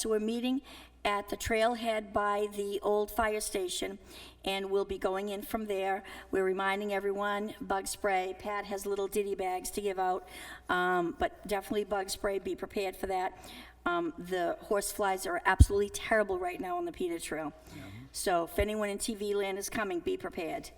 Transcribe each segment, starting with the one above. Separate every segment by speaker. Speaker 1: So we're meeting at the trailhead by the old fire station, and we'll be going in from there. We're reminding everyone, bug spray. Pat has little ditty bags to give out, um, but definitely bug spray, be prepared for that. Um, The horse flies are absolutely terrible right now on the Peter Trail. So if anyone in TV land is coming, be prepared.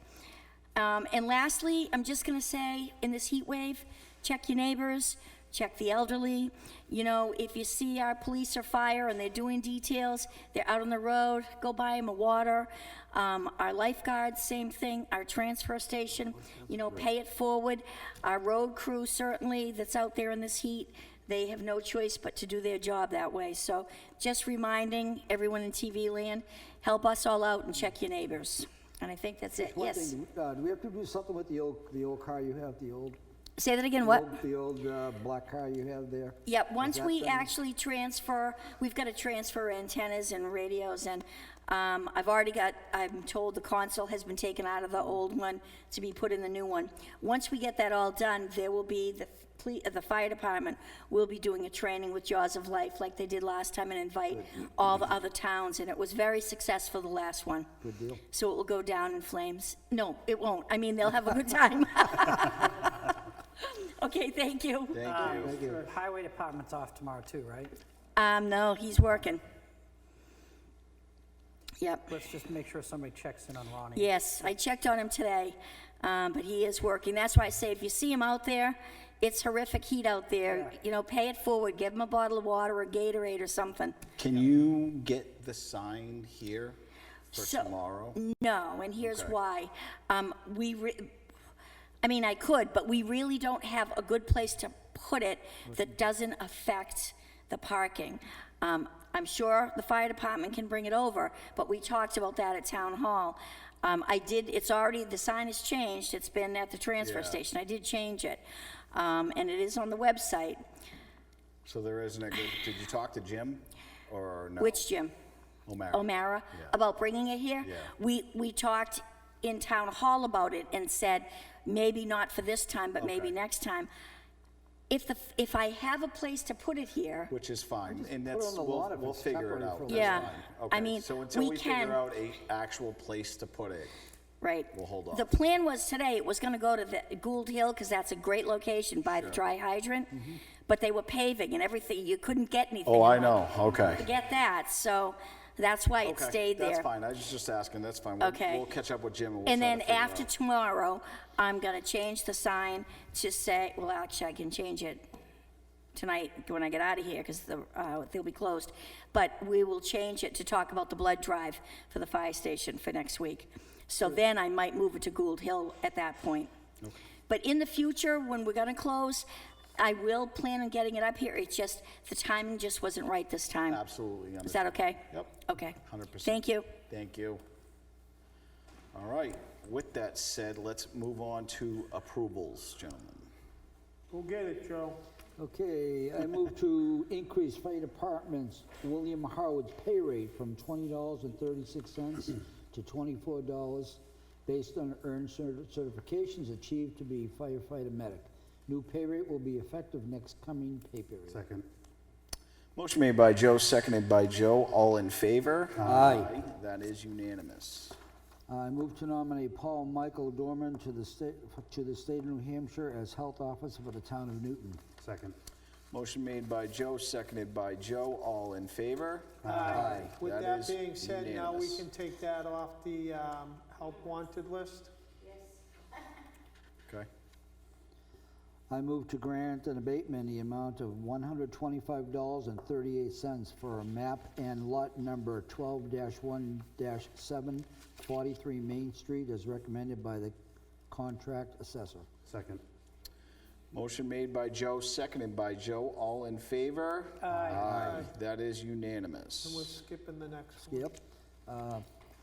Speaker 1: Um, and lastly, I'm just going to say in this heat wave, check your neighbors, check the elderly. You know, if you see our police or fire and they're doing details, they're out on the road, go buy them a water. Um, our lifeguards, same thing. Our transfer station, you know, pay it forward. Our road crew, certainly, that's out there in this heat, they have no choice but to do their job that way. So just reminding everyone in TV land, help us all out and check your neighbors. And I think that's it.
Speaker 2: One
Speaker 1: Yes.
Speaker 2: thing, uh, do we have to do something with the old, the old car you have, the old?
Speaker 1: Say that again, what?
Speaker 2: The old uh, black car you have there?
Speaker 1: Yep, once
Speaker 2: that
Speaker 1: we
Speaker 2: done?
Speaker 1: actually transfer, we've got to transfer antennas and radios, and um, I've already got, I'm told the console has been taken out of the old one to be put in the new one. Once we get that all done, there will be, the ple- uh, the fire department will be doing a training with Jaws of Life like they did last time and invite all the other towns, and it was very successful, the last one.
Speaker 2: Good deal.
Speaker 1: So it will go down in flames. No, it won't. I mean, they'll have a good time. Okay, thank you.
Speaker 2: Thank you.
Speaker 3: The highway department's off tomorrow too, right?
Speaker 1: Um, no, he's working. Yep.
Speaker 3: Let's just make sure somebody checks in on Ronnie.
Speaker 1: Yes, I checked on him today, um, but he is working. That's why I say if you see him out there, it's horrific heat out there. You know, pay it forward. Give him a bottle of water or Gatorade or something.
Speaker 4: Can you get the sign here for
Speaker 1: So-
Speaker 4: tomorrow?
Speaker 1: No, and here's
Speaker 4: Okay.
Speaker 1: why. Um, we, re- I mean, I could, but we really don't have a good place to put it that doesn't affect the parking. Um, I'm sure the fire department can bring it over, but we talked about that at town hall. Um, I did, it's already, the sign has changed, it's been at the transfer
Speaker 4: Yeah.
Speaker 1: station, I did change it. Um, and it is on the website.
Speaker 4: So there isn't a good, did you talk to Jim or no?
Speaker 1: Which, Jim?
Speaker 4: O'Mara.
Speaker 1: O'Mara, about bringing it here.
Speaker 4: Yeah.
Speaker 1: We, we talked in town hall about it and said, maybe not for this time, but maybe
Speaker 4: Okay.
Speaker 1: next time. If the, if I have a place to put it here,
Speaker 4: Which is fine,
Speaker 2: it
Speaker 4: and that's,
Speaker 2: on the
Speaker 4: we'll,
Speaker 2: lot if
Speaker 4: we'll
Speaker 2: it's
Speaker 4: figure it
Speaker 2: temporary
Speaker 4: out.
Speaker 2: for a
Speaker 4: That's
Speaker 1: Yeah.
Speaker 4: fine.
Speaker 1: I
Speaker 4: Okay,
Speaker 1: mean,
Speaker 4: So until
Speaker 1: we
Speaker 4: we
Speaker 1: can-
Speaker 4: figure out a actual place to put it,
Speaker 1: right?
Speaker 4: We'll hold
Speaker 1: The
Speaker 4: off.
Speaker 1: plan was today, it was gonna go to the Gould Hill, because that's a great location by the dry hydrant. But they were paving and everything, you couldn't get anything.
Speaker 4: Mm-hmm. Oh, I
Speaker 1: I'm
Speaker 4: know.
Speaker 1: like,
Speaker 4: Okay.
Speaker 1: Forget that, so that's why it
Speaker 4: Okay,
Speaker 1: stayed there.
Speaker 4: That's fine, I was just asking, that's fine. We'll-
Speaker 1: Okay.
Speaker 4: We'll catch up with Jim and we'll
Speaker 1: And
Speaker 4: try
Speaker 1: then
Speaker 4: to figure it
Speaker 1: after
Speaker 4: out.
Speaker 1: tomorrow, I'm gonna change the sign to say, well, actually, I can change it tonight when I get out of here, because the, uh, they'll be closed. But we will change it to talk about the blood drive for the fire station for next week. So then I might move it to Gould Hill at that point. But in the future, when we're gonna close, I will plan on getting it up here. It's just, the timing just wasn't right this time.
Speaker 4: Absolutely.
Speaker 1: Is that okay?
Speaker 4: Yep.
Speaker 1: Okay.
Speaker 4: 100%.
Speaker 1: Thank you.
Speaker 4: Thank you. All right, with that said, let's move on to approvals, gentlemen.
Speaker 5: We'll get it, Joe.
Speaker 2: Okay, I move to increase fire department's William Howard's pay rate from twenty dollars and thirty-six cents to twenty-four dollars based on earned cer- certifications achieved to be firefighter medic. New pay rate will be effective next coming pay period.
Speaker 5: Second.
Speaker 4: Motion made by Joe, seconded by Joe. All in favor? Aye. That is unanimous.
Speaker 2: I move to nominate Paul Michael Dorman to the state, to the state of New Hampshire as health officer for the town of Newton.
Speaker 5: Second.
Speaker 4: Motion made by Joe, seconded by Joe. All in favor? Aye.
Speaker 6: With that
Speaker 4: is
Speaker 6: being said, now we
Speaker 4: unanimous.
Speaker 6: can take that off the um, help wanted list.
Speaker 4: Okay.
Speaker 2: I move to grant an abatement in the amount of $125.38 for a map and lot number 12-1-7, 43 Main Street, as recommended by the contract assessor.
Speaker 5: Second.
Speaker 4: Motion made by Joe, seconded by Joe. All in favor? Aye. That is
Speaker 6: And we're
Speaker 4: unanimous.
Speaker 6: skipping the next one.
Speaker 2: Yep. Uh,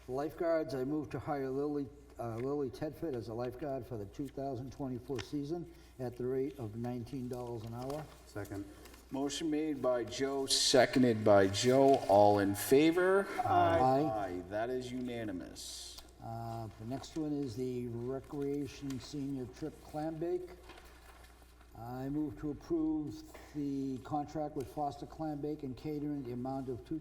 Speaker 2: Lifeguards, I move to hire Lily, uh, Lily Tedford as a lifeguard for the 2024 season at the rate of $19 an hour.
Speaker 5: Second.
Speaker 4: Motion made by Joe, seconded by Joe. All in favor?
Speaker 2: Aye.
Speaker 4: Aye. That is unanimous.
Speaker 2: Uh, The next one is the Recreation Senior Trip Clambake. Uh, I move to approve the contract with Foster Clan Bacon Catering, the amount of two